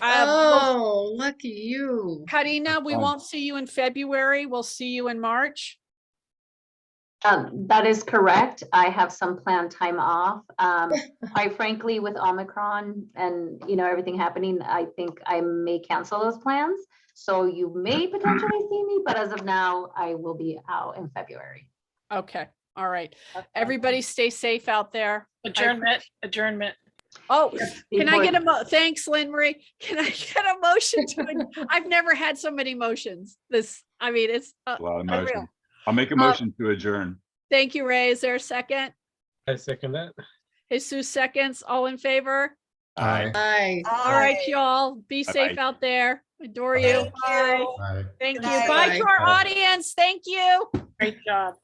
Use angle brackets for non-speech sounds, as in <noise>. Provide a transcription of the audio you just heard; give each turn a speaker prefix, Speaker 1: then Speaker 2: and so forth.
Speaker 1: Uh,
Speaker 2: Oh, lucky
Speaker 1: Oh.
Speaker 2: you.
Speaker 1: Karina, we
Speaker 3: Fine.
Speaker 1: won't see you in February. We'll see you in March.
Speaker 4: Um, that is correct. I have some planned time off. Um, I frankly, with Omicron and, you know, everything happening, I think I may cancel those plans. So you may potentially see me, but as of now, I will be out in February.
Speaker 1: Okay, all right. Everybody stay safe out there.
Speaker 5: Adjournment, adjournment.
Speaker 1: Oh, can I
Speaker 4: Before-
Speaker 1: get a mo, thanks, Lynn Marie. Can I get a motion to, ad- <laughs> I've never had so many motions. This, I Um, mean, it's, uh,
Speaker 3: A lot of
Speaker 1: Unreal.
Speaker 3: motion. I'll make a motion to adjourn.
Speaker 1: thank you, Ray. Is there a second?
Speaker 6: I second that.
Speaker 1: Jesus seconds, all in favor?
Speaker 7: Aye.
Speaker 2: Bye.
Speaker 1: All right, y'all, be safe
Speaker 3: Bye-bye.
Speaker 1: out there. Adore you. Bye.
Speaker 7: Aye.
Speaker 1: Thank you.
Speaker 2: Good night.
Speaker 1: Bye to our audience. Thank you.
Speaker 5: Great job.